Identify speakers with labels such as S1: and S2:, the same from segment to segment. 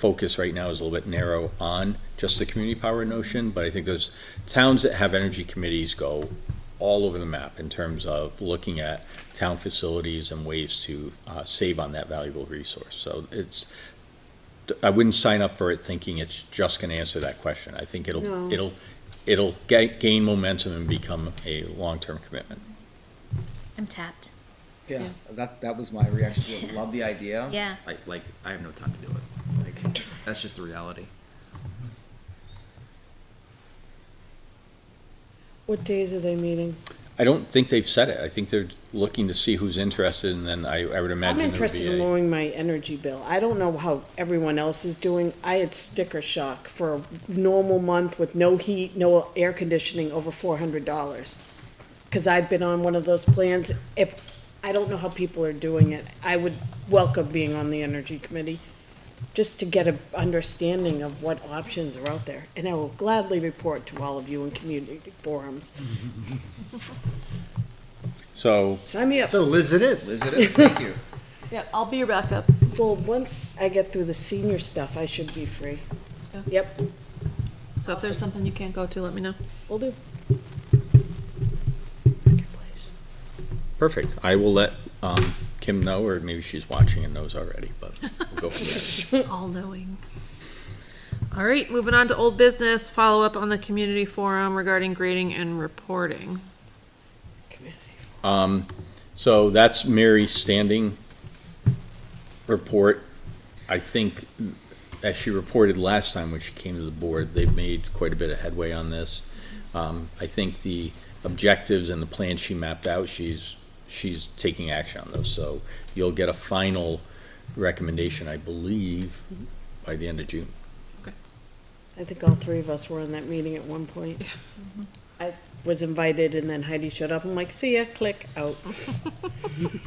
S1: focus right now is a little bit narrow on just the community power notion, but I think those towns that have energy committees go all over the map in terms of looking at town facilities and ways to uh, save on that valuable resource. So it's, I wouldn't sign up for it thinking it's just going to answer that question. I think it'll,
S2: No.
S1: it'll, it'll ga- gain momentum and become a long-term commitment.
S3: I'm tapped.
S4: Yeah,
S3: Yeah.
S4: that that was my reaction. to it. Love the idea.
S3: Yeah.
S4: Like, like I have no time to do it. Like, that's just the reality.
S2: What days are they meeting?
S1: I don't think they've said it. I think they're looking to see who's interested, and then I, I would
S2: I'm
S1: imagine it would
S2: interested
S1: be
S2: in
S1: a.
S2: lowering my energy bill. I don't know how everyone else is doing. I had sticker shock for a normal month with no heat, no air conditioning, over four hundred dollars. Cause I've been on one of those plans. If, I don't know how people are doing it. I would welcome being on the energy committee, just to get a understanding of what options are out there. And I will gladly report to all of you in community forums.
S1: So,
S2: Sign me up.
S5: So Liz, it is.
S4: Liz, it is. Thank you.
S6: Yeah, I'll be your backup.
S2: Well, once I get through the senior stuff, I should be free.
S6: Yeah.
S2: Yep,
S6: So if there's something you can't go to, let me know.
S2: will do.
S1: perfect. I will let, um, Kim know, or maybe she's watching and knows already, but we'll go from there.
S6: All-knowing. All right, moving on to old business, follow-up on the community forum regarding grading and reporting.
S1: Um, so that's Mary's standing report. I think, as she reported last time when she came to the board, they've made quite a bit of headway on this. Um, I think the objectives and the plan she mapped out, she's, she's taking action on those. So you'll get a final recommendation, I believe, by the end of June.
S2: I think all three of us were in that meeting at one point. I was invited and then Heidi showed up. I'm like, see ya, click, out.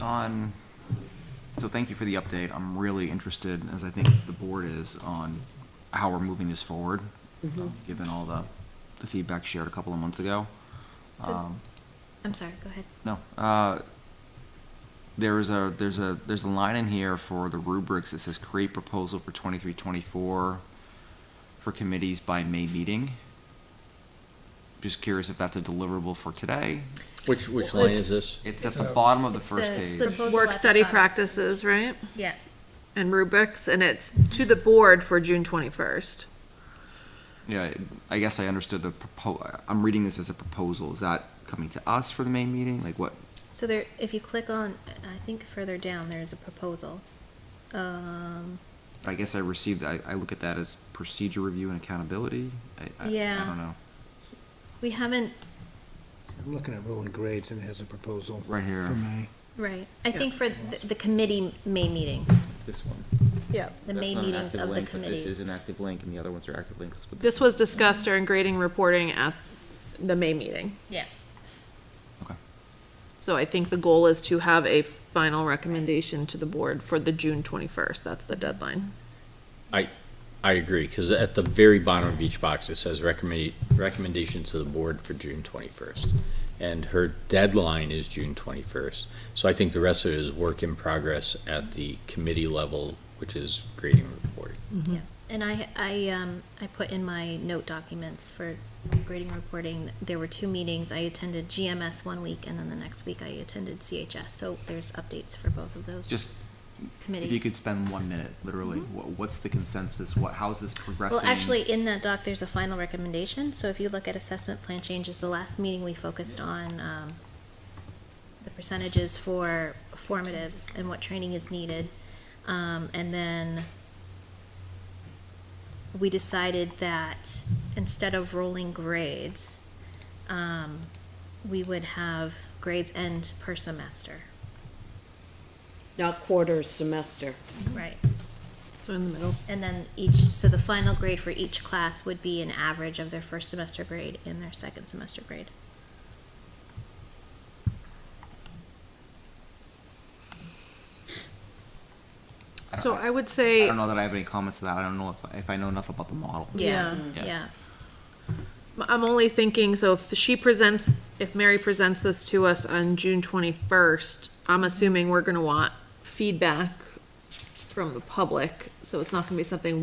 S4: On. So thank you for the update. I'm really interested, as I think the board is, on how we're moving this forward,
S3: Mm-hmm.
S4: um, given all the the feedback shared a couple of months ago. Um,
S3: So- I'm sorry, go ahead.
S4: No. Uh, there is a there's a there's a line in here for the rubrics that says create proposal for twenty three twenty four for committees by May meeting. Just curious if that's a deliverable for today.
S1: Which, which line is
S6: It's-
S1: this?
S4: It's at the bottom of the
S3: It's
S4: first
S3: the- it's the
S4: page.
S3: proposal at
S6: Work
S3: the
S6: study
S3: top.
S6: practices, right?
S3: Yeah.
S6: And rubrics, and it's to the board for June twenty-first.
S4: yeah, I guess I understood the propo. I'm reading this as a proposal. Is that coming to us for the May meeting? Like what?
S3: So there, if you click on, I think further down, there's a proposal. Um,
S4: I guess I received. I, I look at that as procedure review and accountability. I, I,
S3: Yeah.
S4: I don't know.
S3: we haven't,
S5: I'm looking at rolling grades and it has a proposal.
S4: Right here.
S5: For May.
S3: right, I think for the, the committee May meetings,
S4: This one.
S6: Yeah.
S3: the May meetings of the committees.
S4: active link, and the other ones are active links.
S6: This was discussed during grading reporting at the May meeting.
S3: Yeah.
S4: Okay.
S6: So I think the goal is to have a final recommendation to the board for the June twenty-first. That's the deadline.
S1: I agree, because at the very bottom of each box, it says recommend, recommendation to the board for June twenty-first. And her deadline is June twenty-first. So I think the rest of it is work in progress at the committee level, which is grading and reporting.
S3: And I, I, um, I put in my note documents for grading reporting, there were two meetings, I attended GMS one week, and then the next week I attended CHS, so there's updates for both of those
S4: Just
S3: committees.
S4: If you could spend one minute, literally, wha- what's the consensus? What, how is this progressing?
S3: Mm-hmm. Well, actually, in that doc, there's a final recommendation, so if you look at assessment plan changes, the last meeting we focused on, um, the percentages for formatives and what training is needed, um, and then we decided that instead of rolling grades, um, we would have grades end per semester,
S2: Not quarter, semester.
S3: right?
S6: So in the middle.
S3: And then each, so the final grade for each class would be an average of their first semester grade and their second semester grade.
S4: don't-
S6: So I would
S4: I
S6: say.
S4: don't know that I have any comments to that. I don't know if, if I know enough about the model.
S6: Yeah.
S4: Yeah.
S3: Yeah,
S6: I'm only thinking, so if she presents, if Mary presents this to us on June twenty-first, I'm assuming we're gonna want feedback from the public, so it's not gonna be something